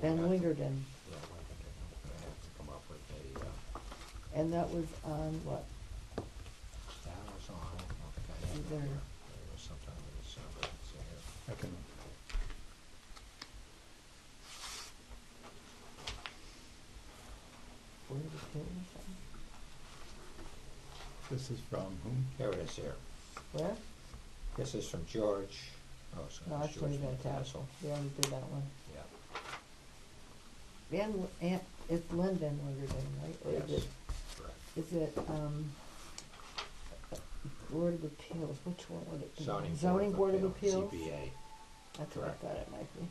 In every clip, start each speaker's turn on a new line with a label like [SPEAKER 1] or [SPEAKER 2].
[SPEAKER 1] Ben
[SPEAKER 2] Yeah, I think-
[SPEAKER 1] Wingerden.
[SPEAKER 2] Yeah, Wingerden. I have to come up with a, uh,
[SPEAKER 1] And that was on what?
[SPEAKER 2] that was on, uh, I don't know if I have it
[SPEAKER 1] Either-
[SPEAKER 2] here. It was sometime in December, let's see here.
[SPEAKER 3] I can,
[SPEAKER 1] Board of Appeals or
[SPEAKER 3] this is from whom?
[SPEAKER 2] Here it is here.
[SPEAKER 1] something? Where?
[SPEAKER 2] This is from George, oh, so
[SPEAKER 1] No,
[SPEAKER 2] it's
[SPEAKER 1] that's
[SPEAKER 2] George
[SPEAKER 1] Tony Van Tassel.
[SPEAKER 2] McCassel.
[SPEAKER 1] We already did that one.
[SPEAKER 2] Yeah,
[SPEAKER 1] Van, Aunt, it's Lynn Van Wingerden, right? Or is
[SPEAKER 2] yes,
[SPEAKER 1] it-
[SPEAKER 2] correct.
[SPEAKER 1] Is it, um, Board of Appeals, which one would it be?
[SPEAKER 2] Zoning.
[SPEAKER 1] Board of Appeals?
[SPEAKER 2] ZBA.
[SPEAKER 1] That's what I
[SPEAKER 2] correct.
[SPEAKER 1] thought it might be.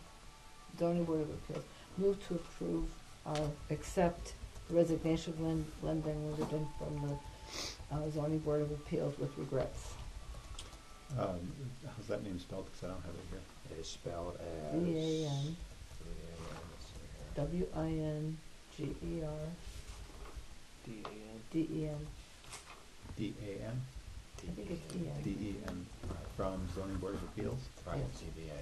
[SPEAKER 1] Zoning Board of Appeals. Move to approve, uh, accept resignation of Lynn, Lynn Van Wingerden from the uh, zoning Board of Appeals with regrets.
[SPEAKER 3] Um, how's that name spelled? Because I don't have it here.
[SPEAKER 2] It is spelled as.
[SPEAKER 1] V A N
[SPEAKER 2] V-A-N, let's see here.
[SPEAKER 1] W I N G E R
[SPEAKER 4] D A N.
[SPEAKER 1] D E N.
[SPEAKER 3] D A N
[SPEAKER 1] I think it's
[SPEAKER 2] D-E-A.
[SPEAKER 1] E
[SPEAKER 3] D E N from zoning board of appeals.
[SPEAKER 2] Right,
[SPEAKER 1] Yes.
[SPEAKER 2] ZBA.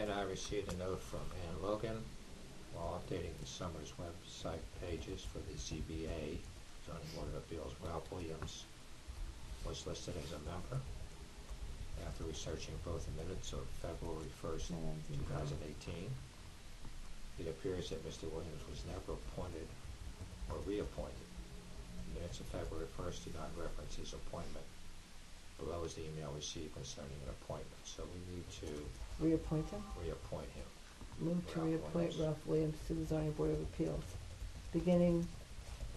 [SPEAKER 2] And I received a note from Ann Logan while updating the summer's website pages for the ZBA, zoning board of appeals, Ralph Williams was listed as a member. After researching both the minutes of February first,
[SPEAKER 1] No, that's
[SPEAKER 2] two
[SPEAKER 1] in there.
[SPEAKER 2] thousand eighteen, it appears that Mr. Williams was never appointed or reappointed. The minutes of February first do not reference his appointment. Below is the email received concerning an appointment, so we need to
[SPEAKER 1] Reappoint him?
[SPEAKER 2] reappoint him.
[SPEAKER 1] Move to
[SPEAKER 2] Ralph
[SPEAKER 1] reappoint
[SPEAKER 2] Williams.
[SPEAKER 1] Ralph Williams to the zoning board of appeals, beginning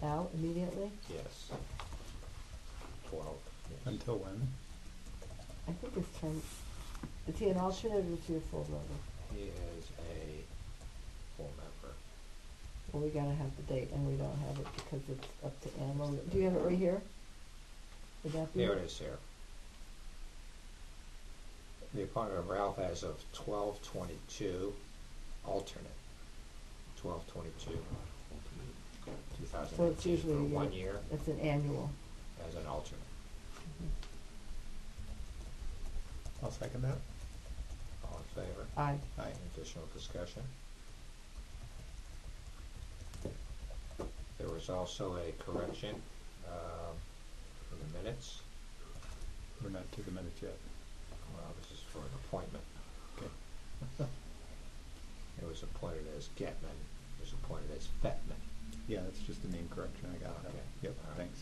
[SPEAKER 1] now immediately.
[SPEAKER 2] Yes. Twelve, yes.
[SPEAKER 3] Until when?
[SPEAKER 1] I think his term, is he an alternate or is he a full member?
[SPEAKER 2] He is a full member.
[SPEAKER 1] Well, we gotta have the date and we don't have it because it's up to Ann Logan. Do you have it right here? Would that be?
[SPEAKER 2] There it is here. The appointment of Ralph as of twelve twenty-two, alternate, twelve twenty-two, two thousand
[SPEAKER 1] So it's
[SPEAKER 2] eighteen,
[SPEAKER 1] usually
[SPEAKER 2] for
[SPEAKER 1] a year.
[SPEAKER 2] one year
[SPEAKER 1] It's an annual.
[SPEAKER 2] as an alternate.
[SPEAKER 1] Mm-hmm.
[SPEAKER 3] I'll second that.
[SPEAKER 2] All in favor?
[SPEAKER 1] Aye.
[SPEAKER 3] Aye.
[SPEAKER 2] Any additional discussion? There was also a correction, um, for the minutes.
[SPEAKER 3] We're not to the minutes yet.
[SPEAKER 2] Well, this is for an appointment.
[SPEAKER 3] Okay.
[SPEAKER 2] It was appointed as Getman, it was appointed as Bettman.
[SPEAKER 3] Yeah, that's just a name correction. I got that.
[SPEAKER 2] Okay.
[SPEAKER 3] Yep,
[SPEAKER 2] All right.
[SPEAKER 3] thanks.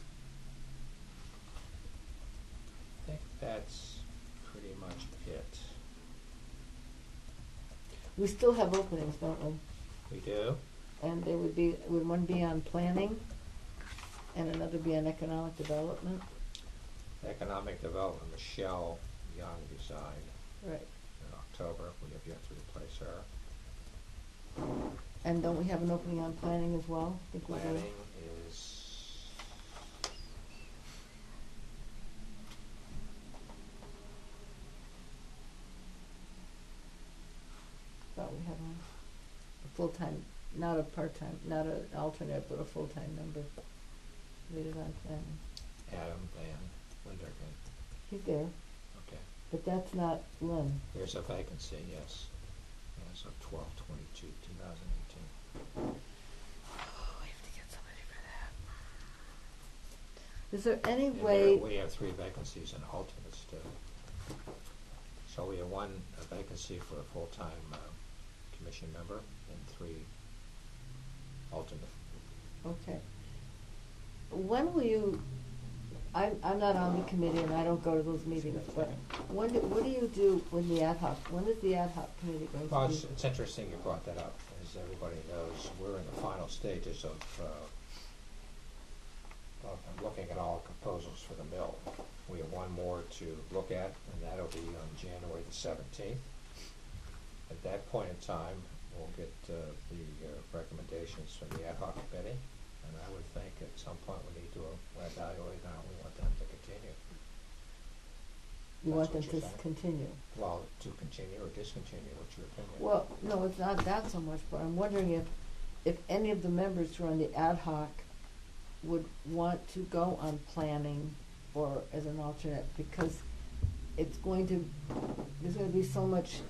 [SPEAKER 2] I think that's pretty much it.
[SPEAKER 1] We still have openings, don't we?
[SPEAKER 2] We do?
[SPEAKER 1] And there would be, would one be on planning and another be on economic development?
[SPEAKER 2] Economic Development, Michelle Young resigned
[SPEAKER 1] Right.
[SPEAKER 2] in October, we have yet to replace her.
[SPEAKER 1] And don't we have an opening on planning as well? I think we do.
[SPEAKER 2] Planning is.
[SPEAKER 1] Thought we had one. A full-time, not a part-time, not an alternate, but a full-time member. Lead it on planning.
[SPEAKER 2] Adam Van Windergan,
[SPEAKER 1] He's there,
[SPEAKER 2] okay.
[SPEAKER 1] but that's not Lynn.
[SPEAKER 2] There's a vacancy, yes, as of twelve twenty-two, two thousand eighteen.
[SPEAKER 1] We Oh, have to get somebody for that. Is there any
[SPEAKER 2] And there,
[SPEAKER 1] way,
[SPEAKER 2] we have three vacancies and alternates too. So we have one a vacancy for a full-time, uh, commission member and three alternate.
[SPEAKER 1] okay. When will you, I'm, I'm not on the committee and I don't go to those meetings, but when, do- what do you do when the ad hoc, when is the ad hoc committee going to be?
[SPEAKER 2] Well, it's, it's interesting you brought that up. As everybody knows, we're in the final stages of, uh, of looking at all proposals for the mill. We have one more to look at, and that'll be on January the seventeenth. At that point in time, we'll get, uh, the uh, recommendations from the ad hoc committee, and I would think at some point we need to evaluate how we want them to continue.
[SPEAKER 1] You want them
[SPEAKER 2] that's what
[SPEAKER 1] to
[SPEAKER 2] you're saying.
[SPEAKER 1] continue?
[SPEAKER 2] Well, to continue or discontinue, what's your opinion?
[SPEAKER 1] Well, no, it's not that so much, but I'm wondering if, if any of the members who are on the ad hoc would want to go on planning or as an alternate, because it's going to, there's gonna be so much